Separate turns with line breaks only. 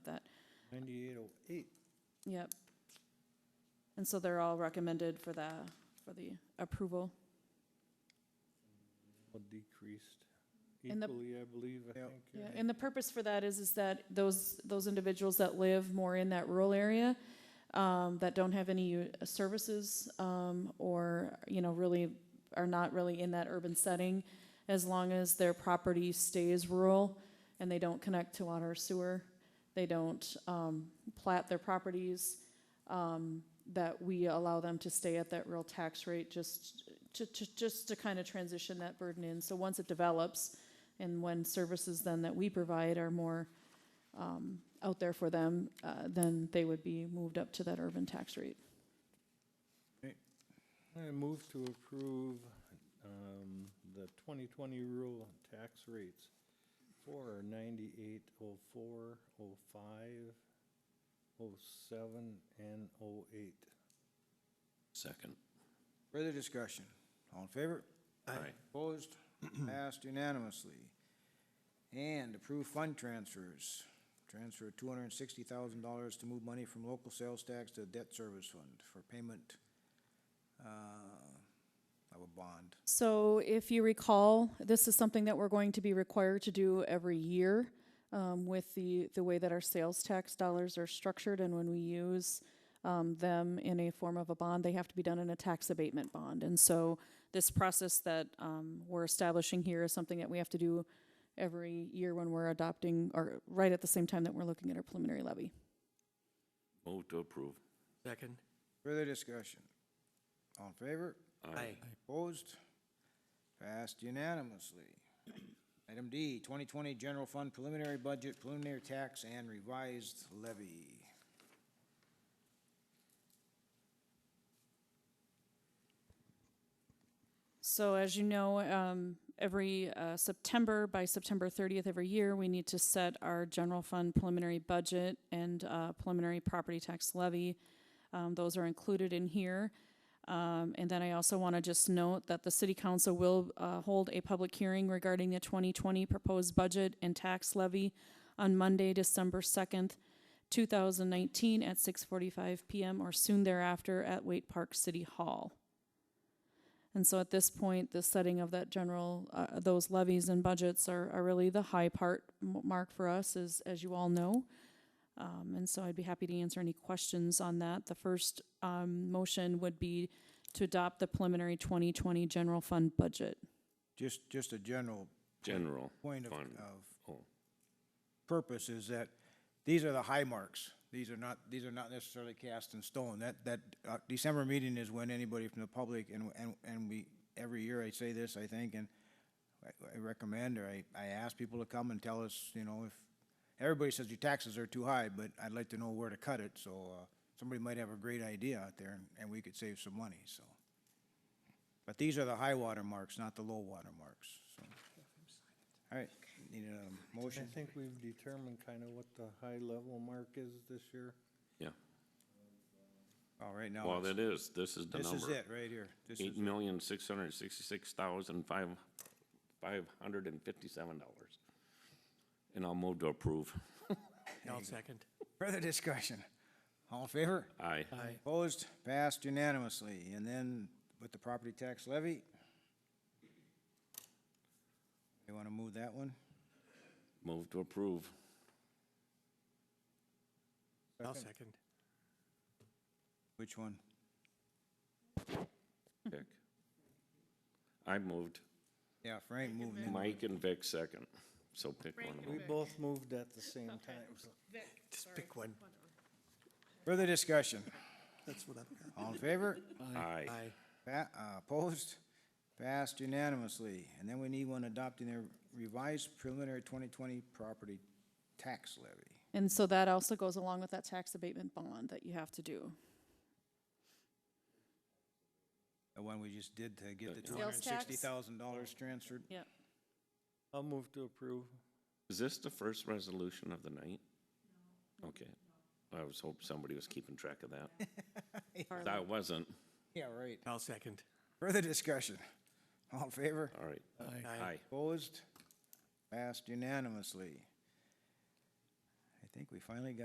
Ninety-eight oh eight.
Yep. And so they're all recommended for the, for the approval.
Well, decreased
And the-
equally, I believe, I think.
Yeah, and the purpose for that is, is that those, those individuals that live more in that rural area, um, that don't have any uh, services, um, or, you know, really are not really in that urban setting, as long as their property stays rural and they don't connect to water or sewer, they don't, um, plat their properties, um, that we allow them to stay at that real tax rate, just to, to, just to kind of transition that burden in. So once it develops, and when services then that we provide are more um, out there for them, uh, then they would be moved up to that urban tax rate.
I move to approve um, the 2020 rural tax rates for oh 98, 04, 05, 07, and 08.
Second.
Further discussion? All in favor?
Aye.
Opposed? Passed unanimously. And approve fund transfers. Transfer two hundred and sixty thousand dollars to move money from local sales tax to the debt service fund for payment uh, of a bond.
So if you recall, this is something that we're going to be required to do every year um, with the, the way that our sales tax dollars are structured and when we use um, them in a form of a bond, they have to be done in a tax abatement bond. And so this process that um, we're establishing here is something that we have to do every year when we're adopting, or right at the same time that we're looking at our preliminary levy.
Move to approve.
Second.
Further discussion? All in favor?
Aye.
Opposed? Passed unanimously. Item D, 2020 General Fund Preliminary Budget, Preliminary Tax, and Revised Levy.
So as you know, um, every, uh, September, by September thirtieth every year, we need to set our general fund preliminary budget and, uh, preliminary property tax levy. Um, those are included in here. Um, and then I also want to just note that the city council will, uh, hold a public hearing regarding the twenty twenty proposed budget and tax levy on Monday, December second, two thousand nineteen, at six forty-five PM or soon thereafter at Wait Park City Hall. And so at this point, the setting of that general, uh, those levies and budgets are, are really the high part m- mark for us, as, as you all know. Um, and so I'd be happy to answer any questions on that. The first, um, motion would be to adopt the preliminary twenty twenty general fund budget.
Just, just a general
General.
point of, uh,
fund.
of
Oh.
purpose is that these are the high marks. These are not, these are not necessarily cast in stone. That, that, uh, December meeting is when anybody from the public, and, and, and we, every year I say this, I think, and I- I recommend, or I, I ask people to come and tell us, you know, if, everybody says your taxes are too high, but I'd like to know where to cut it, so, uh, somebody might have a great idea out there, and- and we could save some money, so. But these are the high water marks, not the low water marks, so. All right, need a
I
motion?
think we've determined kind of what the high-level mark is this year.
Yeah.
All right, now.
Well,
it's-
that is, this is the
This
number.
is it, right here. This is,
Eight million, six hundred and sixty-six thousand, five, five hundred and fifty-seven dollars. And I'll move to approve.
I'll second.
further discussion. All in favor?
Aye.
Aye.
Opposed? Passed unanimously. And then with the property tax levy? You want to move that one?
Move to approve.
I'll
Second.
second.
Which one?
Vic. I moved.
Yeah, Frank moving in.
Mike and Vic second. So pick one of
We
them.
both moved at the same time, so.
Just pick one.
Further discussion.
That's what I've
All in favor?
Aye.
got. Aye.
Pa- uh, Opposed? Passed unanimously. And then we need one adopting the revised preliminary 2020 property tax levy.
And so that also goes along with that tax abatement bond that you have to do.
The one we just did to get the two hundred
Sales
and
tax?
sixty thousand dollars transferred.
Yep.
I'll move to approve.
Is this the first resolution of the night? Okay. I was hoping somebody was keeping track of that. I wasn't.
Yeah, right.
I'll second.
Further discussion? All in favor?
All right.
Aye.
Aye.
Opposed? Passed unanimously. I think we finally got